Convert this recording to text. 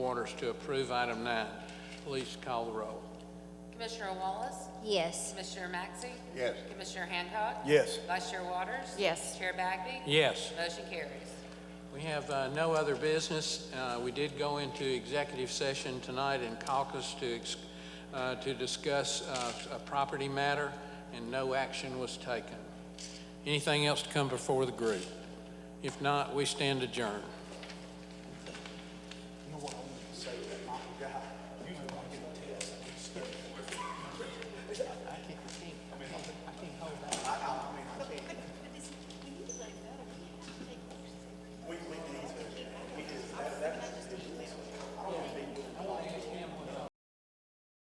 Waters to approve item nine. Please call the roll. Commissioner Wallace? Yes. Commissioner Maxey, Yes. Commissioner Hancock? Yes. Vice Chair Waters? Yes. Chair Bagby? Yes. Motion carries. We have uh, no other business. Uh, We did go into executive session tonight in caucus to, ex- uh, to discuss uh, a property matter, and no action was taken. Anything else to come before the group? If not, we stand adjourned.